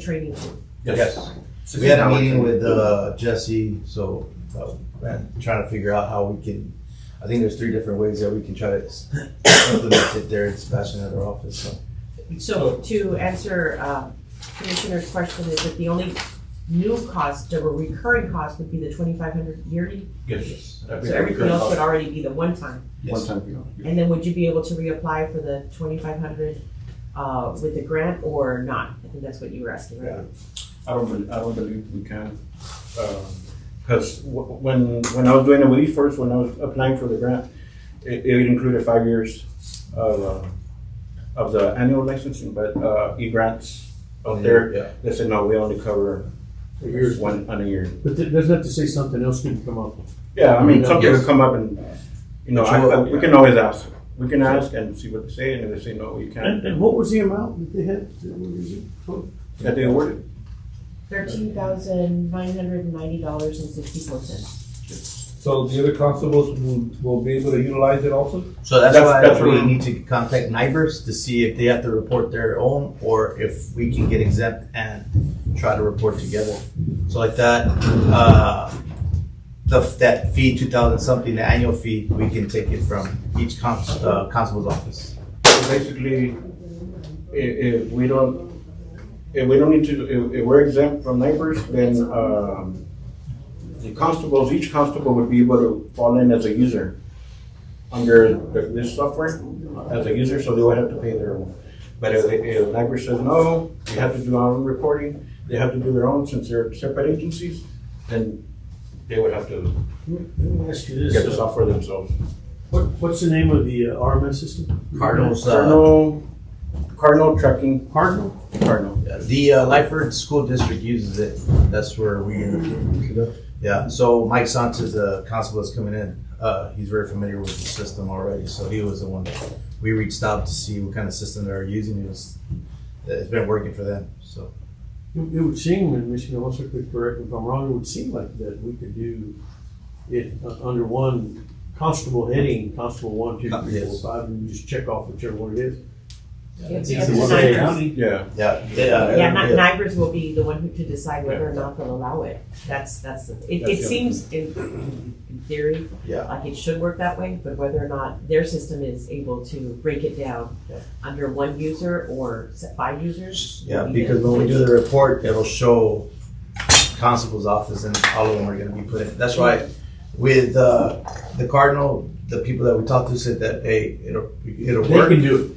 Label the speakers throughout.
Speaker 1: training.
Speaker 2: Yes.
Speaker 3: We had a meeting with uh, Jesse, so uh, we're trying to figure out how we can. I think there's three different ways that we can try to implement it there in Sebastian at our office. So.
Speaker 1: So to answer um, Commissioner's question is that the only new cost, the recurring cost would be the twenty-five hundred yearly.
Speaker 2: Yes.
Speaker 1: So everything else would already be the one time.
Speaker 2: Yes.
Speaker 4: time fee only.
Speaker 1: And then would you be able to reapply for the twenty-five hundred uh, with the grant or not? I think that's what you were asking, right?
Speaker 4: I don't, bel- I don't believe we can. Because when, when I was doing it with E first, when I was applying for the grant, it, it included five years of, uh, of the annual licensing, but uh, E-grants out there,
Speaker 3: Yeah.
Speaker 4: they said, no, we only cover one, on a year.
Speaker 5: But that doesn't have to say something else can come up.
Speaker 4: Yeah, I mean,
Speaker 5: Yeah.
Speaker 4: something will come up and, you know, I- I- we can always ask. We can ask and see what they say, and if they say, no, you
Speaker 5: And,
Speaker 4: can't,
Speaker 5: and what was the amount that they had? What was it? Twelve?
Speaker 4: that they award it.
Speaker 1: Thirteen thousand nine hundred and ninety dollars and sixty-four cents.
Speaker 2: So the other constables will, will be able to utilize it also?
Speaker 3: So that's,
Speaker 4: That's-
Speaker 3: why
Speaker 4: that's
Speaker 3: we
Speaker 4: really-
Speaker 3: need to contact neighbors to see if they have to report their own or if we can get exempt and try to report together. So like that, uh, the, that fee, two thousand something, the annual fee, we can take it from each const, uh, constable's office.
Speaker 4: So basically, if, if we don't, if we don't need to, if, if we're exempt from neighbors, then, um, the constables, each constable would be able to fall in as a user under the- this software, as a user, so they would have to pay their own. But if, if neighbors says, no, we have to do our own reporting, they have to do their own since they're separate agencies, then they would have to
Speaker 5: Let me ask you
Speaker 4: get the
Speaker 5: this. uh,
Speaker 4: software themselves.
Speaker 5: What, what's the name of the uh, RMS system?
Speaker 3: Cardinals, uh,
Speaker 4: Cardinal, Cardinal Trucking,
Speaker 5: Cardinal?
Speaker 4: Cardinal.
Speaker 3: the uh, Lyford School District uses it. That's where we,
Speaker 1: Mm-hmm.
Speaker 3: yeah. So Mike Sanchez, the constable is coming in. Uh, he's very familiar with the system already. So he was the one that we reached out to see what kind of system they're using. It was, it's been working for them. So
Speaker 5: It it would seem, and Michigan also could correct me if I'm wrong, it would seem like that we could do it uh, under one constable heading, constable one, two, three, four,
Speaker 3: Yes.
Speaker 5: five, and you just check off whichever one it is.
Speaker 1: It's
Speaker 5: It's
Speaker 1: the
Speaker 5: the
Speaker 1: neighbors.
Speaker 5: same.
Speaker 4: Yeah,
Speaker 3: yeah, they, uh,
Speaker 1: Yeah, not NIGRS will be the one who to decide whether or
Speaker 4: Yeah.
Speaker 1: not they'll allow it. That's, that's, the- it,
Speaker 4: That's
Speaker 1: it
Speaker 4: the-
Speaker 1: seems in, in theory,
Speaker 3: Yeah.
Speaker 1: like it should work that way, but whether or not their system is able to break it down
Speaker 3: Yeah.
Speaker 1: under one user or set by users.
Speaker 3: Yeah,
Speaker 1: would be
Speaker 3: because
Speaker 1: the-
Speaker 3: when we do the report, it'll show constable's office and all of them are gonna be put in. That's why with, uh, the Cardinal, the people that we talked to said that, hey, it'll, it'll
Speaker 5: They can
Speaker 3: work,
Speaker 5: do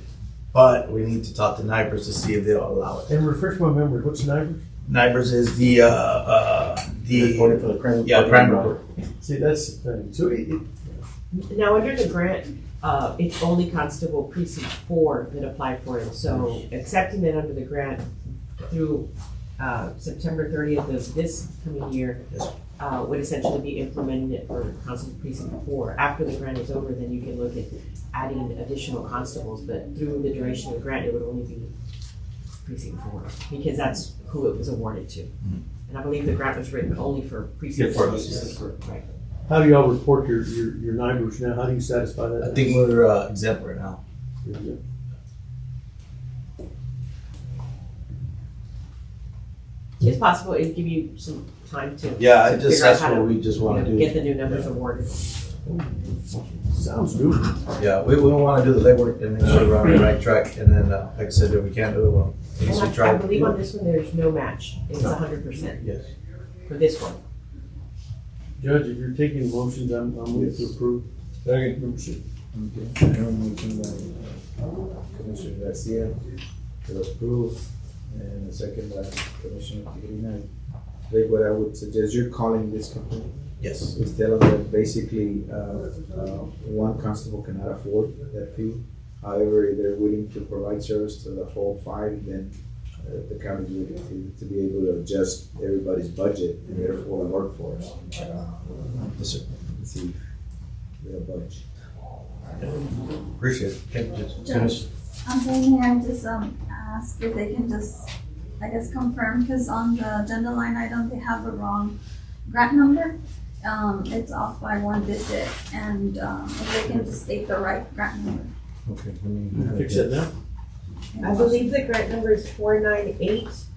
Speaker 3: but we need to talk to NIBRS to see if they'll allow
Speaker 5: it.
Speaker 3: it.
Speaker 5: And refresh my memory, what's NIBRS?
Speaker 3: NIBRS is the, uh, uh, the,
Speaker 4: reported for the crime.
Speaker 3: yeah, crime report.
Speaker 5: See, that's the thing. So it, it-
Speaker 1: Now, under the grant, uh, it's only Constable Precinct Four that applied for it, so accepting it under the grant through, uh, September thirtieth of this coming year,
Speaker 3: Yes.
Speaker 1: uh, would essentially be implementing it for Constable Precinct Four. After the grant is over, then you can look at adding additional constables, but through the duration of the grant, it would only be Precinct Four, because that's who it was awarded to. And I believe the grant was written only for Precinct Four. Right.
Speaker 5: How do y'all report your, your, your numbers now? How do you satisfy that?
Speaker 3: I think we're, uh, exempt right now.
Speaker 1: It's possible, it'd give you some time to.
Speaker 3: Yeah, I
Speaker 1: to
Speaker 3: just,
Speaker 1: figure out
Speaker 3: that's
Speaker 1: how to,
Speaker 3: what we just wanna
Speaker 1: you know, Get
Speaker 3: do.
Speaker 1: the new numbers awarded.
Speaker 5: Sounds good.
Speaker 3: Yeah, we, we wanna do the legwork and make sure we're on the right track and then, uh, like I said, if we can't do it, well, at least we
Speaker 1: And I I
Speaker 3: tried.
Speaker 1: believe on this one, there's no match, it's a hundred percent
Speaker 3: Yes.
Speaker 1: for this one.
Speaker 5: Judge, if you're taking motions, I'm, I'm willing to approve. Number six.
Speaker 2: Okay, I have a motion by uh, Commissioner Garcia to approve, and a second by Commissioner Tigrina. Like what I would suggest, you're calling this company,
Speaker 3: Yes.
Speaker 2: is tell them that basically, uh, uh, one constable cannot afford that fee. However, if they're willing to provide service to the whole five, then uh, the county is willing to, to be able to adjust everybody's budget and therefore workforce. Uh,
Speaker 3: Yes, sir.
Speaker 2: Let's see, if we have a budge.
Speaker 3: Appreciate it. Thank you.
Speaker 6: Judge. I'm thinking I just um ask if they can just, I guess, confirm, because on the agenda line item, they have the wrong grant number. Um, it's off by one digit, and um, if they can just state the right grant number.
Speaker 3: Okay.
Speaker 5: Fix that now?
Speaker 1: I believe the grant number is four nine eight